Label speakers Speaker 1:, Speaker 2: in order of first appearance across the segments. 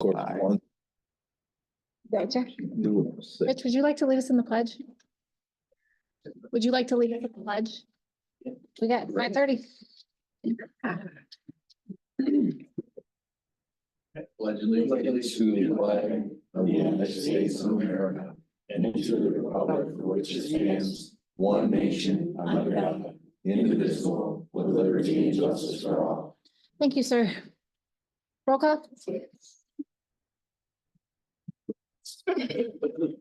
Speaker 1: Gordon
Speaker 2: Aye.
Speaker 1: wants
Speaker 3: Gotcha.
Speaker 1: to do it, so-
Speaker 3: Rich, would you like to lead us in the pledge? Would you like to lead us in the pledge? We got nine thirty.
Speaker 1: Pledge allegiance to the flag of the United States of America and to the republic for which it stands, one nation under God, indivisible, with liberty and justice for all.
Speaker 3: Thank you, sir. Roll call?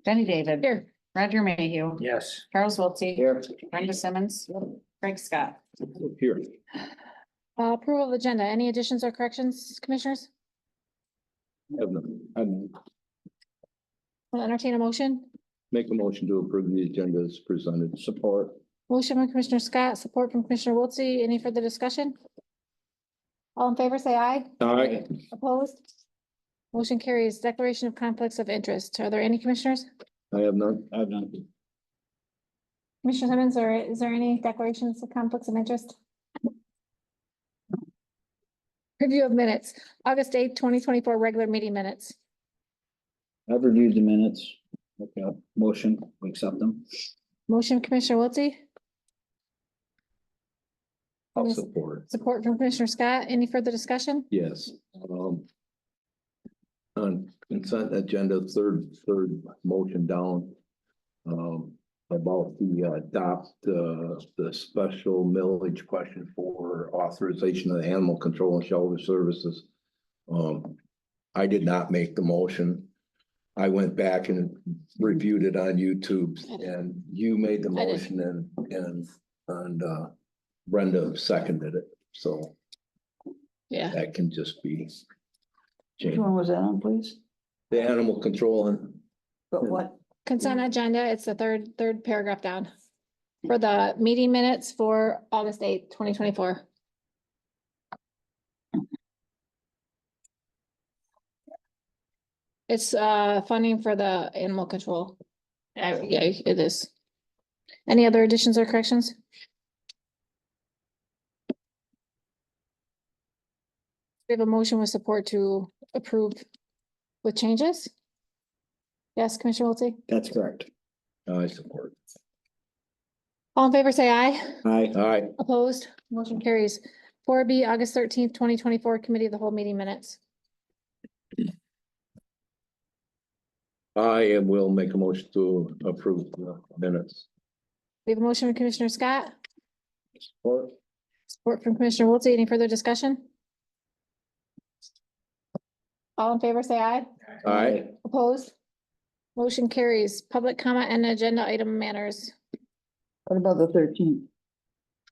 Speaker 4: Jenny David.
Speaker 3: Here.
Speaker 4: Roger Mayhew.
Speaker 1: Yes.
Speaker 4: Charles Wiltie.
Speaker 1: Here.
Speaker 4: Brenda Simmons. Craig Scott.
Speaker 1: Here.
Speaker 3: Uh, Approval of agenda. Any additions or corrections, commissioners?
Speaker 1: Have none. I'm
Speaker 3: Will entertain a motion.
Speaker 1: make a motion to approve the agenda as presented. Support.
Speaker 3: Motion from Commissioner Scott, support from Commissioner Wiltse. Any further discussion? All in favor, say aye.
Speaker 1: Aye.
Speaker 3: Opposed? Motion carries declaration of conflicts of interest. Are there any commissioners?
Speaker 1: I have none. I have none.
Speaker 3: Commissioner Simmons, or is there any declarations of conflicts of interest? Review of minutes, August eighth, twenty twenty-four, regular meeting minutes.
Speaker 5: I've reviewed the minutes. Okay, motion, we accept them.
Speaker 3: Motion Commissioner Wiltie,
Speaker 1: I'll support.
Speaker 3: support from Commissioner Scott. Any further discussion?
Speaker 1: Yes, um. On consent agenda, third, third motion down. Um, about the uh, adopt, uh, the special millage question for authorization of the animal control and shelter services. Um, I did not make the motion. I went back and reviewed it on YouTube and you made the
Speaker 3: I did.
Speaker 1: motion and, and, and, uh. Brenda seconded it, so.
Speaker 3: Yeah.
Speaker 1: That can just be.
Speaker 2: Which
Speaker 1: changed.
Speaker 2: one was that on, please?
Speaker 1: The animal control and,
Speaker 2: But what?
Speaker 3: Consent agenda, it's the third, third paragraph down. For the meeting minutes for August eighth, twenty twenty-four. It's uh funding for the animal control. Uh, Yeah, it is. Any other additions or corrections? We have a motion with support to approve with changes? Yes, Commissioner Wiltie?
Speaker 5: That's correct.
Speaker 1: I support.
Speaker 3: All in favor, say aye.
Speaker 5: Aye,
Speaker 1: All right,
Speaker 3: Opposed, motion carries. Four B, August thirteenth, twenty twenty-four, committee of the whole meeting minutes.
Speaker 1: I am- will make a motion to approve the minutes.
Speaker 3: We have a motion from Commissioner Scott,
Speaker 1: Or,
Speaker 3: support from Commissioner Wiltie. Any further discussion? All in favor, say aye.
Speaker 1: all right,
Speaker 3: Opposed? Motion carries. Public comment and agenda item manners.
Speaker 2: What about the thirteenth?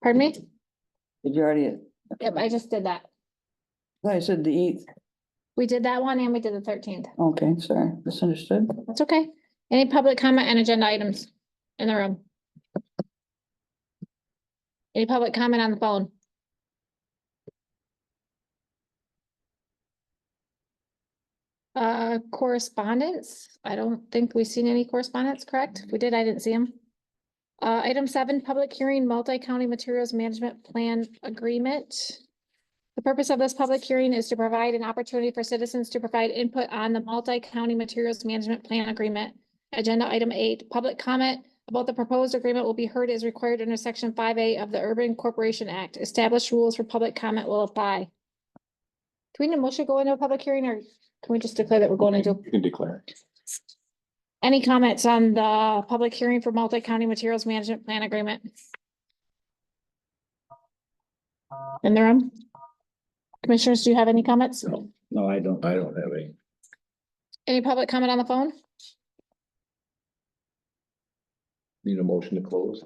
Speaker 3: Pardon me?
Speaker 2: Did you already?
Speaker 3: Yep, I just did that.
Speaker 2: Thought I said the eighth.
Speaker 3: We did that one and we did the thirteenth.
Speaker 2: Okay, sorry, misunderstood.
Speaker 3: That's okay. Any public comment and agenda items in the room? Any public comment on the phone? Uh, correspondence? I don't think we've seen any correspondence, correct? If we did, I didn't see them. Uh, item seven, public hearing, multi-county materials management plan agreement. The purpose of this public hearing is to provide an opportunity for citizens to provide input on the multi-county materials management plan agreement. Agenda item eight, public comment about the proposed agreement will be heard as required under section five A of the Urban Corporation Act. Established rules for public comment will apply. Do we need a motion to go into a public hearing or can we just declare that we're going into?
Speaker 6: You can declare.
Speaker 3: Any comments on the public hearing for multi-county materials management plan agreement? In the room? Commissioners, do you have any comments?
Speaker 1: No.
Speaker 5: no, I don't.
Speaker 1: I don't have any.
Speaker 3: Any public comment on the phone?
Speaker 1: Need a motion to close?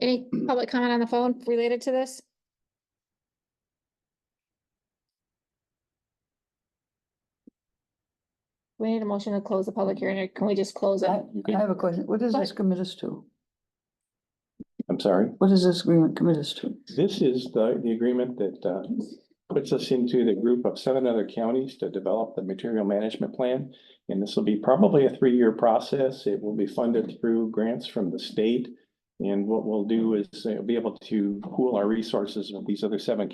Speaker 3: Any public comment on the phone related to this? We need a motion to close the public hearing, or can we just close it?
Speaker 2: I
Speaker 6: You
Speaker 2: I
Speaker 6: can,
Speaker 2: have a question. What does this commit us to?
Speaker 6: I'm sorry.
Speaker 2: What does this agreement commit us to?
Speaker 6: This is the, the agreement that, uh, puts us into the group of seven other counties to develop the material management plan. And this will be probably a three-year process. It will be funded through grants from the state. And what we'll do is uh, be able to pool our resources with these other seven